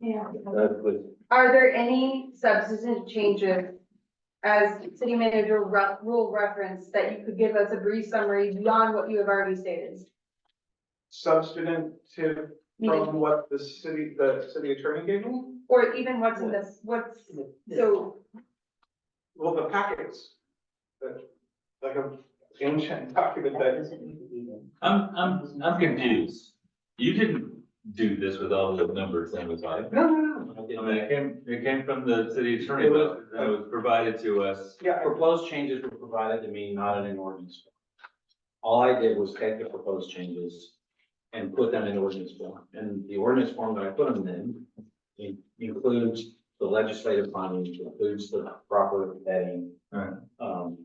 Yeah. That was, Are there any substantive changes as city manager ru- rule reference that you could give us a brief summary beyond what you have already stated? substantive Meaning- from what the city, the city attorney gave me? Or even what's in this, what's, so, Well, the packets, the, like an ancient document that, I'm, I'm, I'm confused. You didn't do this with all the numbers on the side. no, no, no, I mean, it came, it came from the city attorney, but that was provided to us. yeah, Proposed changes were provided to me, not in an ordinance. form. All I did was take the proposed changes and put them in ordinance form, and the ordinance form that I put them in in- includes the legislative findings, includes the proper heading. Right. Um,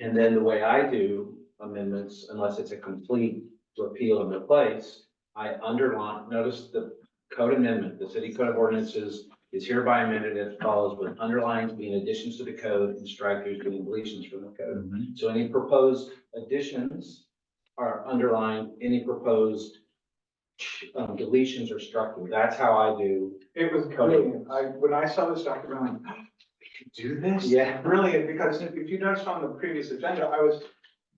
and then the way I do amendments, unless it's a complete repeal and replace, I underline, notice the code amendment, the city code of ordinances is hereby amended as follows, with underlines being additions to the code and strikers being deletions from the code. So any proposed additions are underlined, any proposed um, deletions are struck. That's how I do. it was brilliant. I, when I saw this document, I'm like, "Ah, Do this? Yeah. brilliant, because if if you noticed on the previous agenda, I was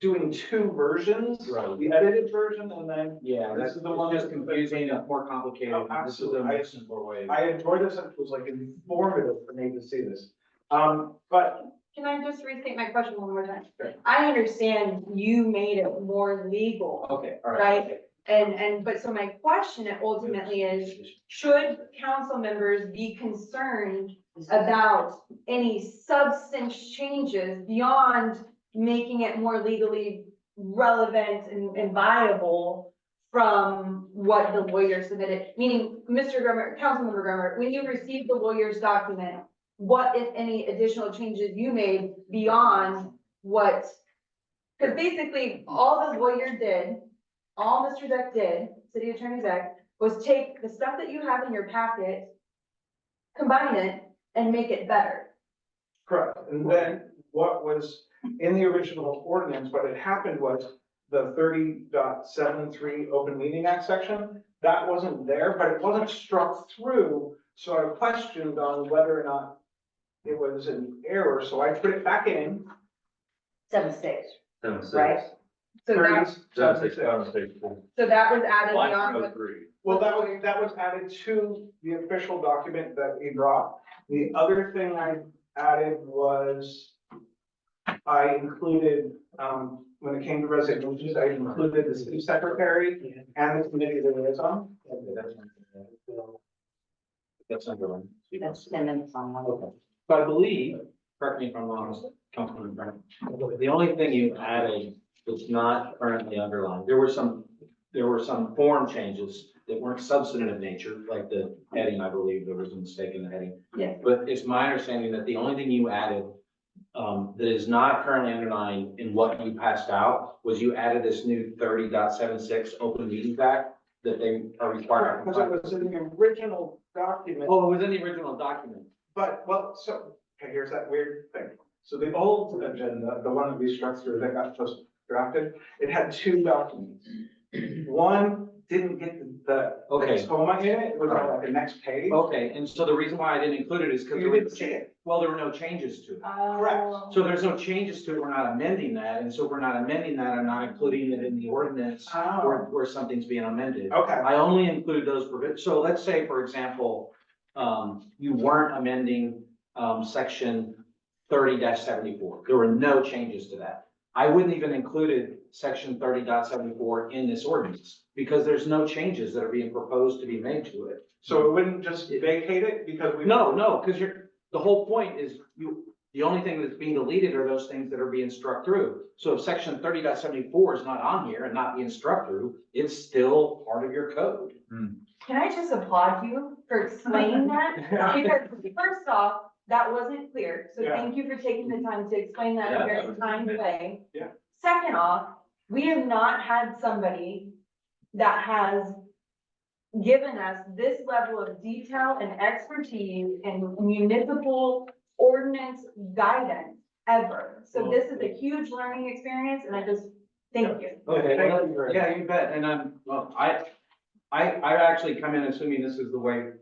doing two versions. Right. The edited version and then Yeah, This that's the is the one one that's that- confusing, it's more complicated. Oh, This is a absolutely. mix and four way. I enjoyed this, and it was like informative for me to see this. Um, but can I just restate my question one more time? Sure. I understand you made it more legal Okay, all right. okay. and, and, but so my question ultimately is, should council members be concerned about any substance changes beyond making it more legally relevant and, and viable from what the lawyer submitted? Meaning, Mr. Grummer, Councilmember Grummer, when you received the lawyer's document, what if any additional changes you made beyond what? Because basically, all the lawyer did, all Mr. Deck did, City Attorney Deck, was take the stuff that you have in your packet, combine it and make it better. Correct, and then what was in the original ordinance, what had happened was the 30.73 open meeting act section, that wasn't there, but it wasn't struck through, so I questioned on whether or not it was an error, so I put it back in, Seven six. Seven, six. Right. So that, thirty, Seven, six, seven, six. seven, six, four. so that was added Line beyond oh what, three. Well, that was, that was added to the official document that we brought. The other thing I added was I included, um, when it came to resignations, I included the city secretary and the committee that it is on. That's underlined. That's and then some. Okay. But I believe, correct me if I'm wrong, Councilman Brown, the only thing you added that's not currently underlined, there were some, there were some form changes that weren't substantive in nature, like the heading, I believe, there was a mistake in the heading. Yeah. But it's my understanding that the only thing you added um, that is not currently underlined in what you passed out was you added this new 30.76 open meetings act that they are required. to Because it comply. was in the original document, Oh, it was in the original document. but, well, so, okay, here's that weird thing. So the old agenda, the one that we struck through that got just drafted, it had two documents. One didn't get the Okay. Toma in it, it was on like the next page. Okay, and so the reason why I didn't include it is because there You were, didn't see it. well, there were no changes to it. Oh. So there's no changes to it, we're not amending that, and so if we're not amending that, I'm not including it in the ordinance where, Oh, where something's being amended. okay, I only include those provisions, so let's say, for example, um, you weren't amending, um, section thirty seventy-four, there were no changes to that. I wouldn't even included section thirty seventy-four in this ordinance, because there's no changes that are being proposed to be made to it. so it wouldn't just vacate it because we. No, no, because you're, the whole point is you, the only thing that's being deleted are those things that are being struck through. So if section thirty is not on here and not being struck through, it's still part of your code. Can I just applaud you for explaining that? Because first off, that wasn't clear, so Yeah. thank you for taking the time to explain that in a Yeah, that very was- kind way. Yeah. Second off, we have not had somebody that has given us this level of detail and expertise and municipal ordinance guidance ever. So this is a huge learning experience, and I just, thank you. Okay, well, thank you very much. Yeah, you bet, and I'm, well, I, I, I actually come in assuming this is the way